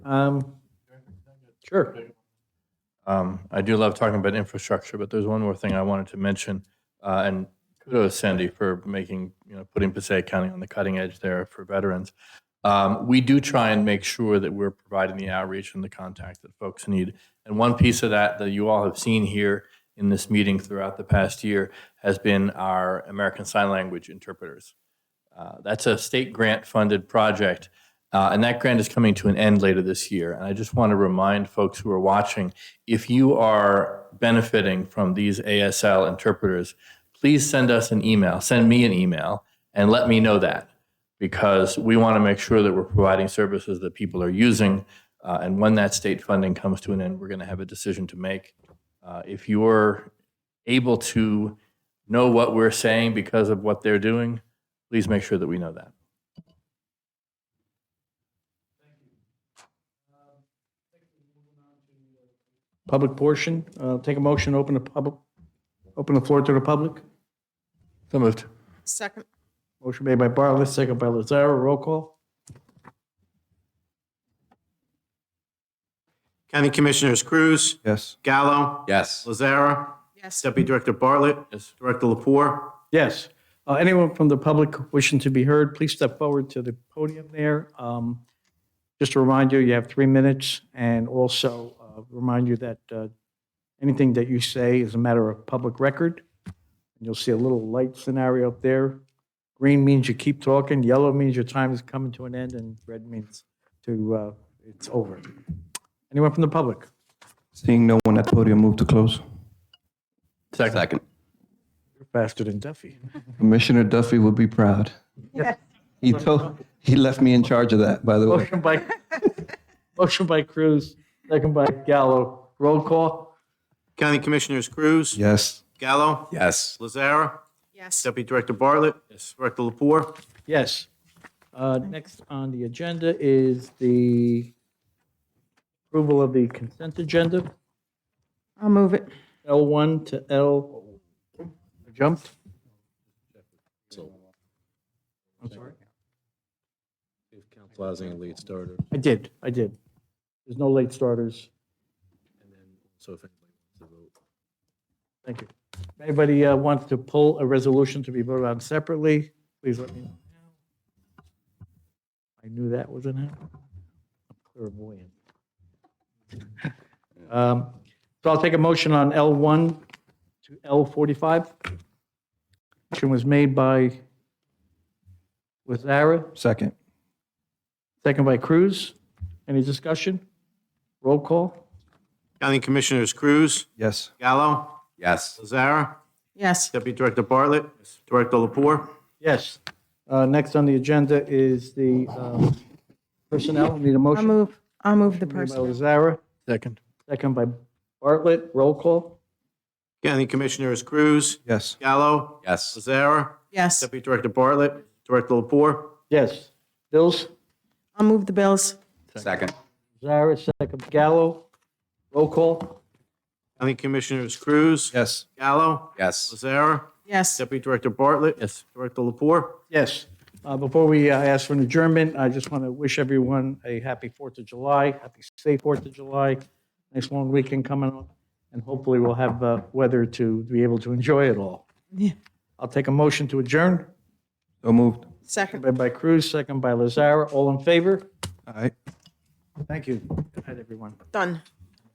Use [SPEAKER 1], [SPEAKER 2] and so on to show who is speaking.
[SPEAKER 1] Um, Sure.
[SPEAKER 2] Um, I do love talking about infrastructure, but there's one more thing I wanted to mention. Uh, and kudos Sandy for making, you know, putting Passaic County on the cutting edge there for veterans. Um, we do try and make sure that we're providing the outreach and the contact that folks need. And one piece of that that you all have seen here in this meeting throughout the past year has been our American Sign Language interpreters. Uh, that's a state grant funded project. Uh, and that grant is coming to an end later this year. And I just want to remind folks who are watching if you are benefiting from these ASL interpreters, please send us an email, send me an email, and let me know that because we want to make sure that we're providing services that people are using. Uh, and when that state funding comes to an end, we're going to have a decision to make. Uh, if you're able to know what we're saying because of what they're doing, please make sure that we know that.
[SPEAKER 1] Public portion, uh, take a motion, open the public, open the floor to the public.
[SPEAKER 2] So moved.
[SPEAKER 3] Second,
[SPEAKER 1] Motion made by Bartlett, second by Lazara, roll call.
[SPEAKER 4] County Commissioners Cruz,
[SPEAKER 5] Yes.
[SPEAKER 4] Gallo,
[SPEAKER 5] Yes.
[SPEAKER 4] Lazara,
[SPEAKER 3] yes.
[SPEAKER 4] Deputy Director Bartlett,
[SPEAKER 2] Yes.
[SPEAKER 4] Director Lapore.
[SPEAKER 1] Yes. Uh, Anyone from the public wishing to be heard, please step forward to the podium there. Um, Just to remind you, you have three minutes, and also uh, remind you that uh, anything that you say is a matter of public record. And You'll see a little light scenario up there. Green means you keep talking, yellow means your time is coming to an end, and red means to, uh, it's over. Anyone from the public?
[SPEAKER 5] Seeing no one at podium, move to close.
[SPEAKER 2] Second.
[SPEAKER 1] You're Faster than Duffy.
[SPEAKER 5] Commissioner Duffy would be proud. He told, he left me in charge of that, by the way.
[SPEAKER 1] Motion by, motion by Cruz, second by Gallo. Roll call?
[SPEAKER 4] County Commissioners Cruz,
[SPEAKER 5] Yes.
[SPEAKER 4] Gallo,
[SPEAKER 5] Yes.
[SPEAKER 4] Lazara,
[SPEAKER 3] Yes.
[SPEAKER 4] Deputy Director Bartlett, Director Lapore.
[SPEAKER 1] Yes. Uh, Next on the agenda is the approval of the consent agenda,
[SPEAKER 3] I'll move it.
[SPEAKER 1] L1 to L, I jumped? I'm sorry.
[SPEAKER 6] Council Housing and Lead Starter,
[SPEAKER 1] I did, I did. There's no late starters.
[SPEAKER 6] and then also if anybody wants to vote.
[SPEAKER 1] Thank you. If anybody uh, wants to pull a resolution to be voted on separately, please let me know. I knew that wasn't happening. I'm clairvoyant. Um, So I'll take a motion on L1 to L45. Motion was made by Lazara,
[SPEAKER 5] Second.
[SPEAKER 1] second by Cruz. Any discussion? Roll call?
[SPEAKER 4] County Commissioners Cruz,
[SPEAKER 5] Yes.
[SPEAKER 4] Gallo,
[SPEAKER 5] Yes.
[SPEAKER 4] Lazara,
[SPEAKER 3] Yes.
[SPEAKER 4] Deputy Director Bartlett, Director Lapore.
[SPEAKER 1] Yes. Uh, Next on the agenda is the um, personnel. Need a
[SPEAKER 3] I'll
[SPEAKER 1] motion?
[SPEAKER 3] move, I'll move the
[SPEAKER 1] Made by
[SPEAKER 3] person.
[SPEAKER 1] Lazara,
[SPEAKER 2] Second.
[SPEAKER 1] second by Bartlett, roll call?
[SPEAKER 4] County Commissioners Cruz,
[SPEAKER 5] Yes.
[SPEAKER 4] Gallo,
[SPEAKER 5] Yes.
[SPEAKER 4] Lazara,
[SPEAKER 3] Yes.
[SPEAKER 4] Deputy Director Bartlett, Director Lapore.
[SPEAKER 1] Yes. Dills?
[SPEAKER 3] I'll move the bills.
[SPEAKER 5] Second.
[SPEAKER 1] Lazara, second, Gallo, roll call?
[SPEAKER 4] County Commissioners Cruz,
[SPEAKER 5] Yes.
[SPEAKER 4] Gallo,
[SPEAKER 5] Yes.
[SPEAKER 4] Lazara,
[SPEAKER 3] Yes.
[SPEAKER 4] Deputy Director Bartlett,
[SPEAKER 2] Yes.
[SPEAKER 4] Director Lapore.
[SPEAKER 1] Yes. Uh, Before we uh, ask for an adjournment, I just want to wish everyone a happy Fourth of July, happy safe Fourth of July. Nice long weekend coming up, and hopefully we'll have uh, weather to be able to enjoy it all.
[SPEAKER 3] Yeah.
[SPEAKER 1] I'll take a motion to adjourn,
[SPEAKER 5] So moved.
[SPEAKER 3] Second.
[SPEAKER 1] made by Cruz, second by Lazara, all in favor?
[SPEAKER 5] All right.
[SPEAKER 1] Thank you. Good night, everyone.
[SPEAKER 3] Done.